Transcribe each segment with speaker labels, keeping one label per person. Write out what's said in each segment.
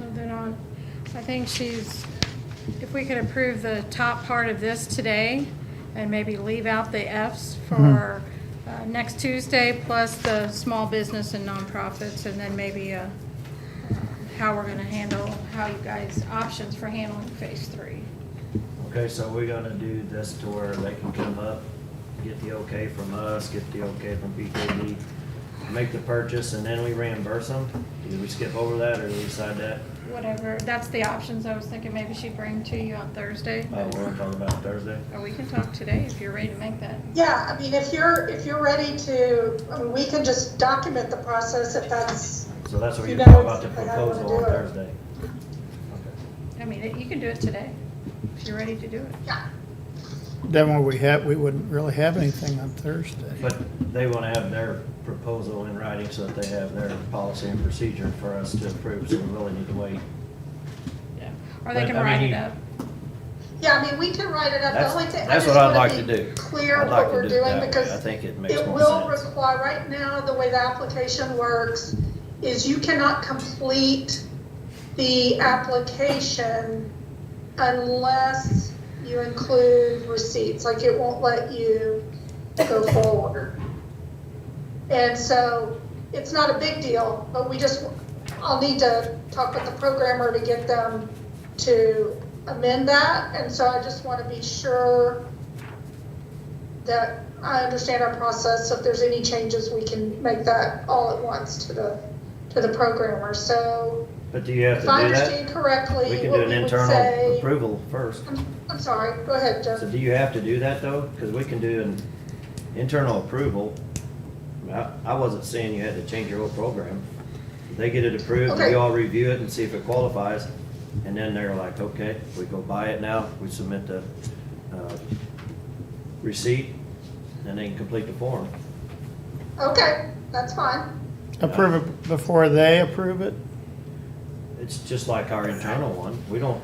Speaker 1: moving on. I think she's, if we could approve the top part of this today and maybe leave out the Fs for uh, next Tuesday, plus the small business and nonprofits, and then maybe uh, how we're gonna handle, how you guys, options for handling phase three.
Speaker 2: Okay, so we're gonna do this to where they can come up, get the okay from us, get the okay from BKD, make the purchase, and then we reimburse them? Either we skip over that, or we decide that?
Speaker 1: Whatever, that's the options I was thinking maybe she'd bring to you on Thursday.
Speaker 2: Oh, we're gonna talk about Thursday?
Speaker 1: Or we can talk today if you're ready to make that.
Speaker 3: Yeah, I mean, if you're, if you're ready to, I mean, we can just document the process if that's,
Speaker 2: So that's what
Speaker 3: You
Speaker 2: you talk
Speaker 3: know,
Speaker 2: about the
Speaker 3: I don't wanna
Speaker 2: proposal on
Speaker 3: do it.
Speaker 2: Thursday?
Speaker 1: I mean, you can do it today, if you're ready to do it.
Speaker 3: yeah.
Speaker 4: Then when we have, we wouldn't really have anything on Thursday.
Speaker 2: But they wanna have their proposal in writing so that they have their policy and procedure for us to approve, so we really need to wait.
Speaker 1: Yeah. Or they
Speaker 2: But,
Speaker 1: can
Speaker 2: I mean,
Speaker 1: write it
Speaker 2: you-
Speaker 1: up.
Speaker 3: Yeah, I mean, we can write it up. The
Speaker 2: That's-
Speaker 3: only thing, I
Speaker 2: that's what
Speaker 3: just
Speaker 2: I'd
Speaker 3: wanna
Speaker 2: like
Speaker 3: be
Speaker 2: to do.
Speaker 3: Clear
Speaker 2: I'd like
Speaker 3: what
Speaker 2: to
Speaker 3: we're
Speaker 2: do it
Speaker 3: doing
Speaker 2: that way.
Speaker 3: because
Speaker 2: I think it makes
Speaker 3: it
Speaker 2: more
Speaker 3: will
Speaker 2: sense.
Speaker 3: require, right now, the way the application works is you cannot complete the application unless you include receipts, like it won't let you go forward. And so it's not a big deal, but we just, I'll need to talk with the programmer to get them to amend that. And so I just want to be sure that I understand our process. So if there's any changes, we can make that all at once to the, to the programmer. So
Speaker 2: But do you have to
Speaker 3: if I
Speaker 2: do that?
Speaker 3: understand correctly,
Speaker 2: We can
Speaker 3: what
Speaker 2: do an
Speaker 3: we would
Speaker 2: internal
Speaker 3: say-
Speaker 2: approval first.
Speaker 3: I'm- I'm sorry, go ahead, Jeff.
Speaker 2: So do you have to do that though? Because we can do an internal approval. I, I wasn't saying you had to change your whole program. They get it approved, we
Speaker 3: Okay.
Speaker 2: all review it and see if it qualifies. And then they're like, okay, we go buy it now, we submit the, uh, receipt, and they can complete the form.
Speaker 3: Okay, that's fine.
Speaker 4: Approve it before they approve it?
Speaker 2: It's just like our internal one. We don't,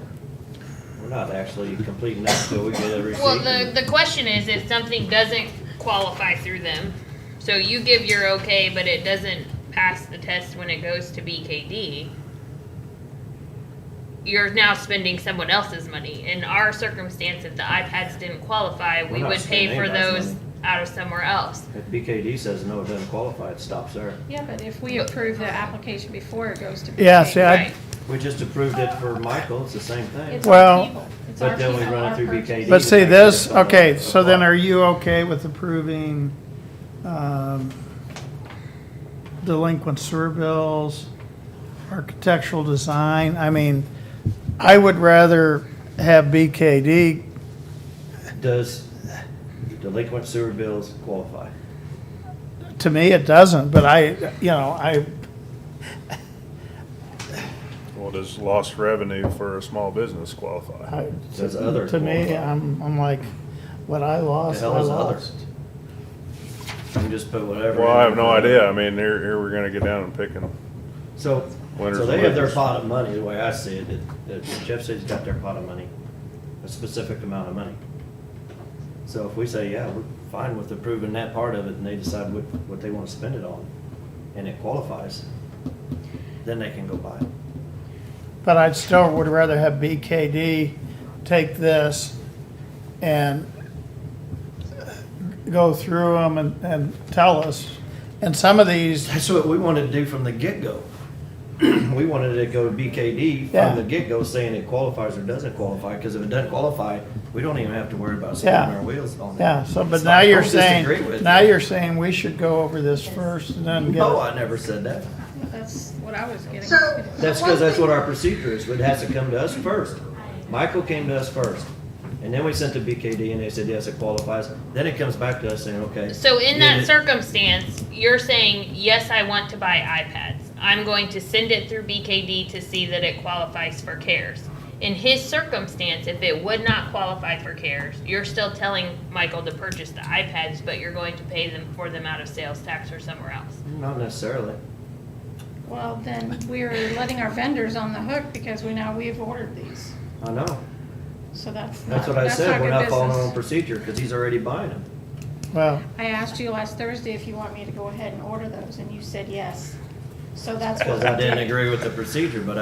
Speaker 2: we're not actually completing that till we get a receipt.
Speaker 5: Well, the, the question is if something doesn't qualify through them. So you give your okay, but it doesn't pass the test when it goes to BKD. You're now spending someone else's money. In our circumstance, if the iPads didn't qualify,
Speaker 2: We're
Speaker 5: we
Speaker 2: not
Speaker 5: would pay
Speaker 2: spending
Speaker 5: for
Speaker 2: anybody's
Speaker 5: those
Speaker 2: money.
Speaker 5: out of somewhere else.
Speaker 2: If BKD says no, it doesn't qualify, it stops there.
Speaker 1: Yeah, but if we approve the application before it goes to.
Speaker 4: Yeah,
Speaker 1: BK,
Speaker 4: see, I-
Speaker 5: Right.
Speaker 2: We just approved it for Michael, it's the same thing.
Speaker 1: It's our
Speaker 4: Well-
Speaker 1: people. It's
Speaker 2: But
Speaker 1: our
Speaker 2: then we
Speaker 1: people,
Speaker 2: run it
Speaker 1: our
Speaker 2: through
Speaker 1: purchase.
Speaker 2: BKD.
Speaker 4: But see,
Speaker 2: actually
Speaker 4: this,
Speaker 2: someone
Speaker 4: okay, so then
Speaker 2: applied.
Speaker 4: are you okay with approving um, delinquent sewer bills, architectural design? I mean, I would rather have BKD,
Speaker 2: Does delinquent sewer bills qualify?
Speaker 4: to me, it doesn't, but I, you know, I,
Speaker 6: Well, does lost revenue for a small business qualify?
Speaker 4: I-
Speaker 2: Does other
Speaker 4: to me,
Speaker 2: qualify?
Speaker 4: I'm, I'm like, what I
Speaker 2: The
Speaker 4: lost, I
Speaker 2: hell is
Speaker 4: lost.
Speaker 2: others? You can just put whatever.
Speaker 6: Well,
Speaker 2: in
Speaker 6: I have no
Speaker 2: there.
Speaker 6: idea. I mean, here, here we're gonna get down and pick them.
Speaker 2: So,
Speaker 6: Winners
Speaker 2: so
Speaker 6: and
Speaker 2: they have their
Speaker 6: losers.
Speaker 2: pot of money, the way I see it, that- that Jeff says he's got their pot of money, a specific amount of money. So if we say, yeah, we're fine with approving that part of it, and they decide what, what they want to spend it on, and it qualifies, then they can go buy it.
Speaker 4: But I'd still would rather have BKD take this and go through them and, and tell us. And some of these,
Speaker 2: That's what we wanted to do from the get-go. We wanted to go to BKD
Speaker 4: Yeah.
Speaker 2: from the get-go saying it qualifies or doesn't qualify, because if it doesn't qualify, we don't even have to worry about spinning
Speaker 4: Yeah.
Speaker 2: our wheels on it.
Speaker 4: yeah, so, but
Speaker 2: It's
Speaker 4: now
Speaker 2: like,
Speaker 4: you're
Speaker 2: don't disagree with
Speaker 4: saying,
Speaker 2: it.
Speaker 4: now you're saying we should go over this first and then get
Speaker 2: No,
Speaker 4: it.
Speaker 2: Oh, I never said that.
Speaker 1: That's what I was getting.
Speaker 3: So-
Speaker 1: at.
Speaker 2: That's because that's what our procedure is, but it has to come to us first. Michael came to us first, and then we sent to BKD, and they said, yes, it qualifies. Then it comes back to us saying, okay.
Speaker 5: So in that
Speaker 2: did it-
Speaker 5: circumstance, you're saying, yes, I want to buy iPads. I'm going to send it through BKD to see that it qualifies for CARES. In his circumstance, if it would not qualify for CARES, you're still telling Michael to purchase the iPads, but you're going to pay them for them out of sales tax or somewhere else.
Speaker 2: Not necessarily.
Speaker 1: Well, then we're letting our vendors on the hook because we now, we've ordered these.
Speaker 2: I know.
Speaker 1: So that's.
Speaker 2: That's
Speaker 1: not-
Speaker 2: what I
Speaker 1: good
Speaker 2: said. We're not following our own
Speaker 1: business.
Speaker 2: procedure, because he's already buying them.
Speaker 4: Well,
Speaker 1: I asked you last Thursday if you want me to go ahead and order those and you said yes. So that's what.
Speaker 2: Because
Speaker 1: we
Speaker 2: I didn't
Speaker 1: did.
Speaker 2: agree with the procedure, but